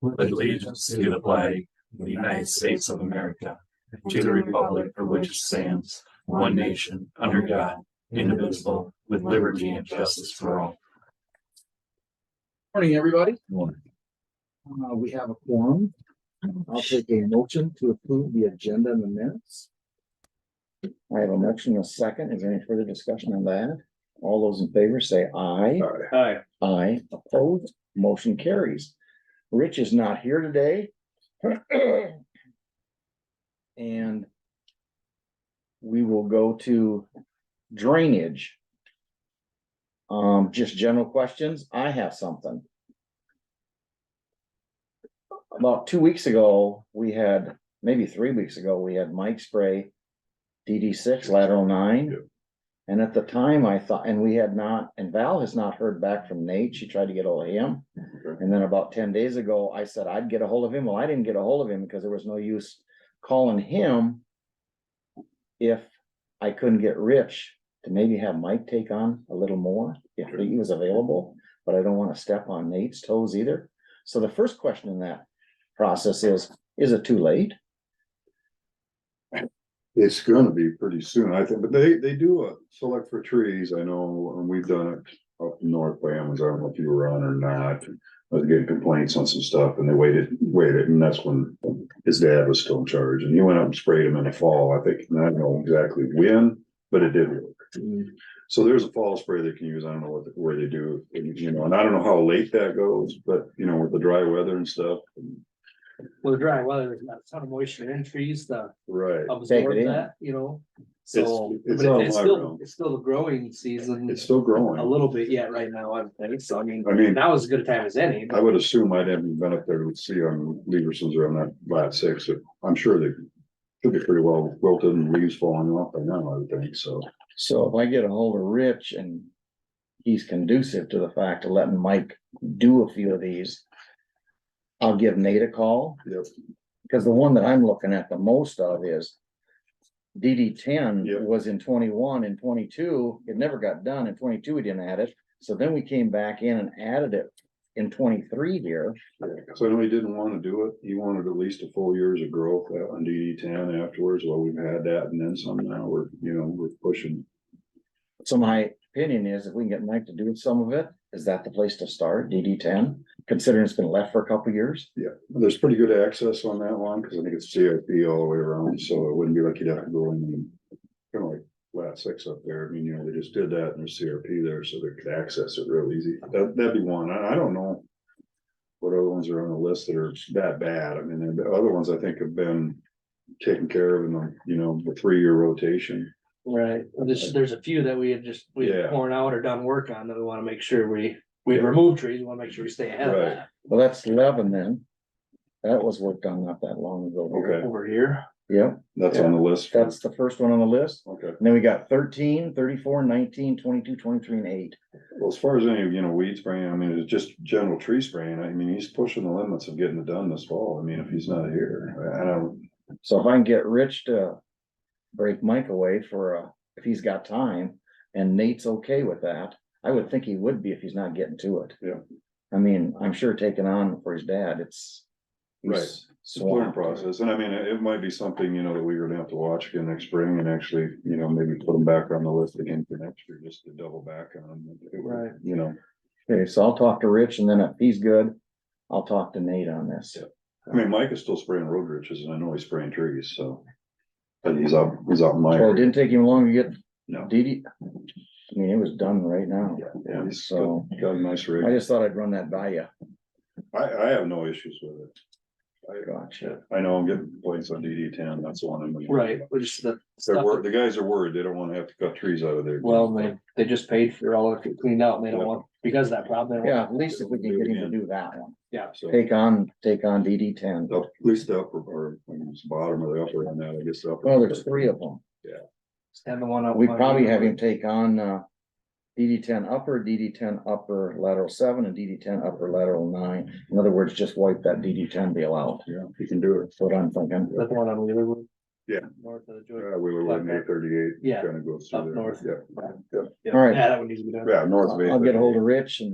with allegiance to the flag of the United States of America, and to the republic for which it stands, one nation, under God, indivisible, with liberty and justice for all. Morning, everybody. Morning. Uh, we have a quorum. I'll take a motion to approve the agenda in the minutes. I have a motion and a second. Is there any further discussion on that? All those in favor say aye. Hi, Aye. Opposed, motion carries. Rich is not here today. And we will go to drainage. Um, just general questions. I have something. About two weeks ago, we had, maybe three weeks ago, we had Mike Spray DD six lateral nine. And at the time I thought, and we had not, and Val has not heard back from Nate. She tried to get hold of him. And then about ten days ago, I said I'd get a hold of him. Well, I didn't get a hold of him because there was no use calling him. If I couldn't get Rich to maybe have Mike take on a little more, if he was available, but I don't want to step on Nate's toes either. So the first question in that process is, is it too late? It's gonna be pretty soon, I think, but they, they do a select for trees, I know, and we've done it up north by Amazon, I don't know if you were on or not. I was getting complaints on some stuff and they waited, waited, and that's when his dad was still in charge and he went out and sprayed him in the fall, I think, and I don't know exactly when, but it did work. So there's a fall spray they can use, I don't know what, where they do, you know, and I don't know how late that goes, but you know, with the dry weather and stuff. well, the dry weather, there's not a ton of moisture in trees to Right. Take it absorb in. that, you know? So, it's but on it's my still, ground. it's still the growing season, It's still growing. a little bit yet right now, I would think, so I mean, I mean, now is as good a time as any. I would assume I haven't been up there to see on Leverson's or on that lat six, but I'm sure they could be pretty well wilted and leaves falling off by now, I would think, so. So if I get a hold of Rich and he's conducive to the fact of letting Mike do a few of these. I'll give Nate a call, Yep. because the one that I'm looking at the most of is. DD ten Yeah. was in twenty-one and twenty-two, it never got done, in twenty-two we didn't add it, so then we came back in and added it in twenty-three here. So I know he didn't want to do it. He wanted at least a full years of growth out on DD ten afterwards. Well, we've had that and then some now. We're, you know, we're pushing. So my opinion is if we can get Mike to do some of it, is that the place to start, DD ten, considering it's been left for a couple of years? There's pretty good access on that one because I think it's CIP all the way around, so it wouldn't be like you'd have to go in and kind of like lat six up there. I mean, you know, they just did that and there's CRP there, so they could access it real easy. That, that'd be one. I, I don't know what other ones are on the list that are that bad. I mean, there- the other ones I think have been taken care of in the, you know, the three-year rotation. Right, there's, there's a few that we had just, we had Yeah. torn out or done work on that we wanna make sure we, we remove trees, we wanna make sure we stay ahead of Right. that Well, that's Lebanon. That was worked on not that long ago. Okay. over here. Yep, That's on the list. for- that's the first one on the list. Okay. And then we got 13, 34, 19, 22, 23, and eight. Well, as far as any, you know, weed spraying, I mean, it's just general tree spraying. I mean, he's pushing the limits of getting it done this fall. I mean, if he's not here, I don't, So if I can get Rich to break Mike away for, uh, if he's got time and Nate's okay with that, I would think he would be if he's not getting to it. Yeah. I mean, I'm sure taking on for his dad, it's. Right. he's it's a learning swamped. process. And I mean, it it might be something, you know, that we're gonna have to watch again next spring and actually, you know, maybe put him back on the list again for next year, just to double back on him. It would, Right. You know, Okay, so I'll talk to Rich and then if he's good, I'll talk to Nate on this. I mean, Mike is still spraying road riches and I know he's spraying trees, so. But he's out, he's out in my. Well, it didn't take him long to get No. DD, I mean, it was done right now, Yeah, he's got so got a nice I rig. just thought I'd run that by you. I, I have no issues with it. Gotcha. I know I'm getting points on DD ten, that's the one I'm. gonna- Right, we're just the. They're stuff wor- the guys are worried, they don't wanna have to cut trees out of there. Well, they, they just paid for all of it cleaned out and they don't want, because of that problem. they don't Yeah, want- at least if we can get him to do that one. So, Take on, take on DD ten. up- at least the upper, or, I mean, it's the bottom of the upper on that, I guess. the upper- Well, there's three of them. And the one up. We on- probably have him take on, uh, DD ten upper, DD ten upper lateral seven and DD ten upper lateral nine. In other words, just wipe that DD ten deal out. Yeah, you can do it. That's what I'm thinking. Is that the one on Wheelerwood? Yeah. North of the Georgia. Yeah, we were like eight thirty-eight. Yeah, Kind of goes up through there. north. Yeah, All right. Yeah, that one needs to be done. yeah, north of eight. I'll get a hold of Rich and